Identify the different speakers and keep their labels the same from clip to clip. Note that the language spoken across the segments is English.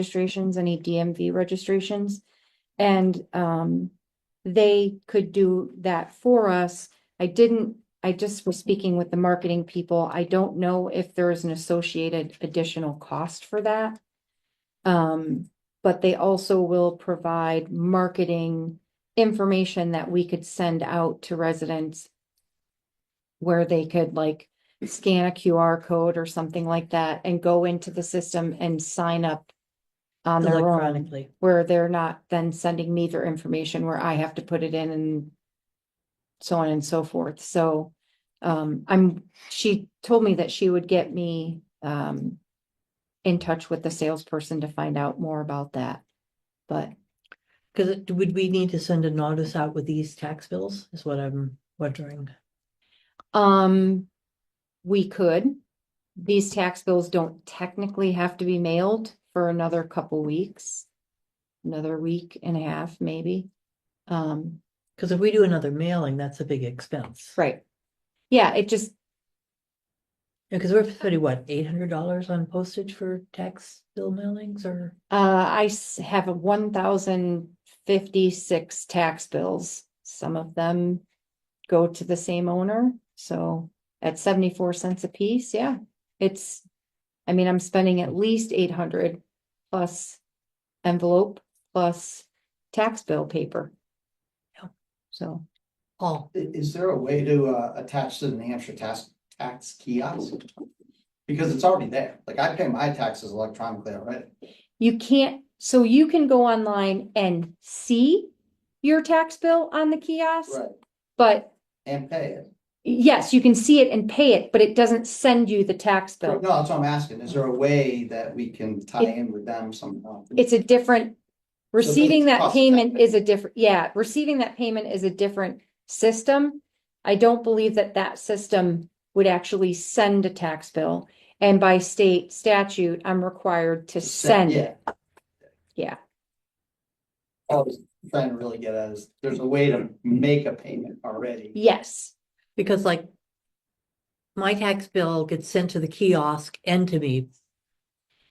Speaker 1: registrations, any DMV registrations. And um, they could do that for us. I didn't, I just was speaking with the marketing people. I don't know if there is an associated additional cost for that. Um, but they also will provide marketing information that we could send out to residents where they could like scan a QR code or something like that and go into the system and sign up on their own
Speaker 2: electronically.
Speaker 1: where they're not then sending me their information where I have to put it in and so on and so forth. So um, I'm, she told me that she would get me um in touch with the salesperson to find out more about that. But
Speaker 2: Because would we need to send a notice out with these tax bills is what I'm wondering.
Speaker 1: um, we could. These tax bills don't technically have to be mailed for another couple weeks. Another week and a half, maybe. Um,
Speaker 2: Because if we do another mailing, that's a big expense.
Speaker 1: Right. Yeah, it just,
Speaker 2: Because we're spending what, eight hundred dollars on postage for tax bill mailings or?
Speaker 1: uh, I s- have a one thousand fifty-six tax bills. Some of them go to the same owner, so at seventy-four cents a piece, yeah. It's, I mean, I'm spending at least eight hundred plus envelope plus tax bill paper.
Speaker 2: Yeah.
Speaker 1: So,
Speaker 2: Oh,
Speaker 3: I- is there a way to uh attach to the New Hampshire tax tax kiosk? Because it's already there, like I pay my taxes electronically already,
Speaker 1: you can't, so you can go online and see your tax bill on the kiosk.
Speaker 3: Right.
Speaker 1: But
Speaker 3: and pay it.
Speaker 1: Yes, you can see it and pay it, but it doesn't send you the tax
Speaker 3: No,
Speaker 1: bill.
Speaker 3: that's what I'm asking, is there a way that we can tie in with them somehow?
Speaker 1: It's a different, receiving that
Speaker 3: cost
Speaker 1: payment
Speaker 3: effective.
Speaker 1: is a different, yeah, receiving that payment is a different system. I don't believe that that system would actually send a tax bill. And by state statute, I'm required to send it.
Speaker 3: Yeah.
Speaker 1: Yeah.
Speaker 3: I was trying to really get at is, there's a way to make a payment already,
Speaker 1: Yes,
Speaker 2: because like my tax bill gets sent to the kiosk and to me.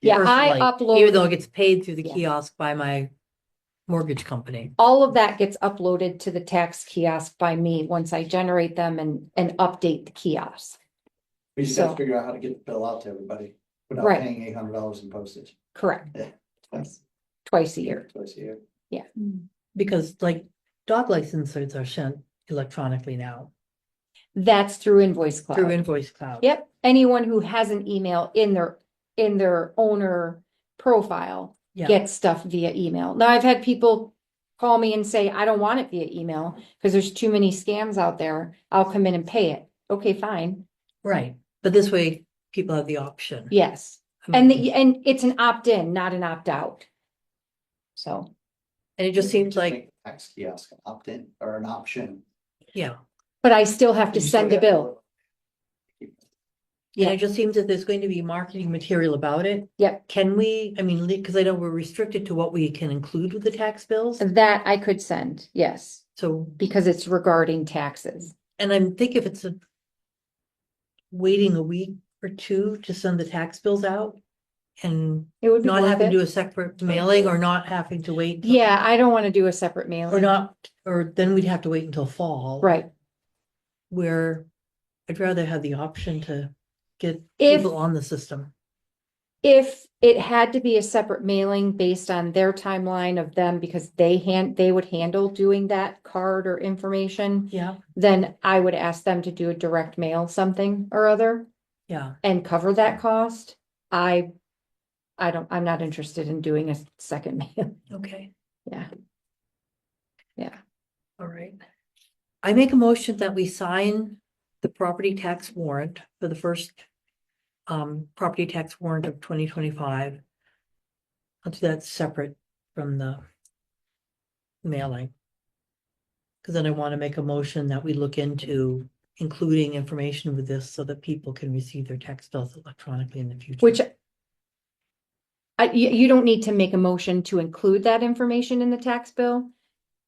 Speaker 1: Yeah, I
Speaker 2: personally, Even
Speaker 1: upload-
Speaker 2: though it gets paid through the
Speaker 1: Yeah.
Speaker 2: kiosk by my mortgage company.
Speaker 1: all of that gets uploaded to the tax kiosk by me once I generate them and, and update the kiosk.
Speaker 3: we just gotta
Speaker 1: So-
Speaker 3: figure out how to get the bill out to everybody without
Speaker 1: Right.
Speaker 3: paying eight hundred dollars in postage.
Speaker 1: Correct,
Speaker 3: Twice
Speaker 1: twice a year.
Speaker 3: Twice a year.
Speaker 2: Because like dog licenses are sent electronically now
Speaker 1: That's through invoice cloud.
Speaker 2: through Invoice Cloud.
Speaker 1: Yep, anyone who has an email in their, in their owner profile
Speaker 2: Yeah.
Speaker 1: gets stuff via email. Now, I've had people call me and say, I don't want it via email because there's too many scams out there. I'll come in and pay it. Okay, fine.
Speaker 2: Right, but this way people have the option.
Speaker 1: Yes.
Speaker 2: I
Speaker 1: And,
Speaker 2: mean,
Speaker 1: the- and it's an opt-in, not an opt-out. So,
Speaker 2: And it just seems like,
Speaker 3: Make the Tax kiosk an opt-in or an option.
Speaker 2: yeah,
Speaker 1: but I still have to
Speaker 3: You still
Speaker 1: send a
Speaker 3: gotta-
Speaker 1: bill.
Speaker 2: and
Speaker 1: Yeah.
Speaker 2: it just seems that there's going to be marketing material about it.
Speaker 1: Yep.
Speaker 2: Can we, I mean, because I know we're restricted to what we can include with the tax bills,
Speaker 1: That I could send, yes,
Speaker 2: so,
Speaker 1: because it's regarding taxes.
Speaker 2: and I'm think if it's a waiting a week or two to send the tax bills out and
Speaker 1: It would be
Speaker 2: not
Speaker 1: worth
Speaker 2: having to do
Speaker 1: it.
Speaker 2: a separate mailing or not having to wait. till-
Speaker 1: Yeah, I don't want to do a separate
Speaker 2: Or
Speaker 1: mailing.
Speaker 2: not, or then we'd have to wait until fall.
Speaker 1: Right.
Speaker 2: where I'd rather have the option to get
Speaker 1: If-
Speaker 2: people on the system.
Speaker 1: If it had to be a separate mailing based on their timeline of them, because they hand, they would handle doing that card or information,
Speaker 2: Yeah.
Speaker 1: then I would ask them to do a direct mail something or other
Speaker 2: Yeah,
Speaker 1: and cover that cost. I, I don't, I'm not interested in doing a second mail.
Speaker 2: okay,
Speaker 1: Yeah.
Speaker 2: all right. I make a motion that we sign the property tax warrant for the first um, property tax warrant of twenty twenty-five. I'll do that separate from the mailing. Because then I want to make a motion that we look into including information with this so that people can receive their tax bills electronically in the future.
Speaker 1: Which I, you, you don't need to make a motion to include that information in the tax bill.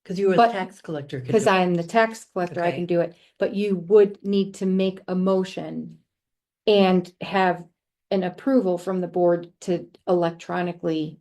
Speaker 2: Because you were the
Speaker 1: But-
Speaker 2: tax collector. could
Speaker 1: Because
Speaker 2: do it.
Speaker 1: I am the tax collector, I
Speaker 2: Okay.
Speaker 1: can do it, but you would need to make a motion. And have an approval from the board to electronically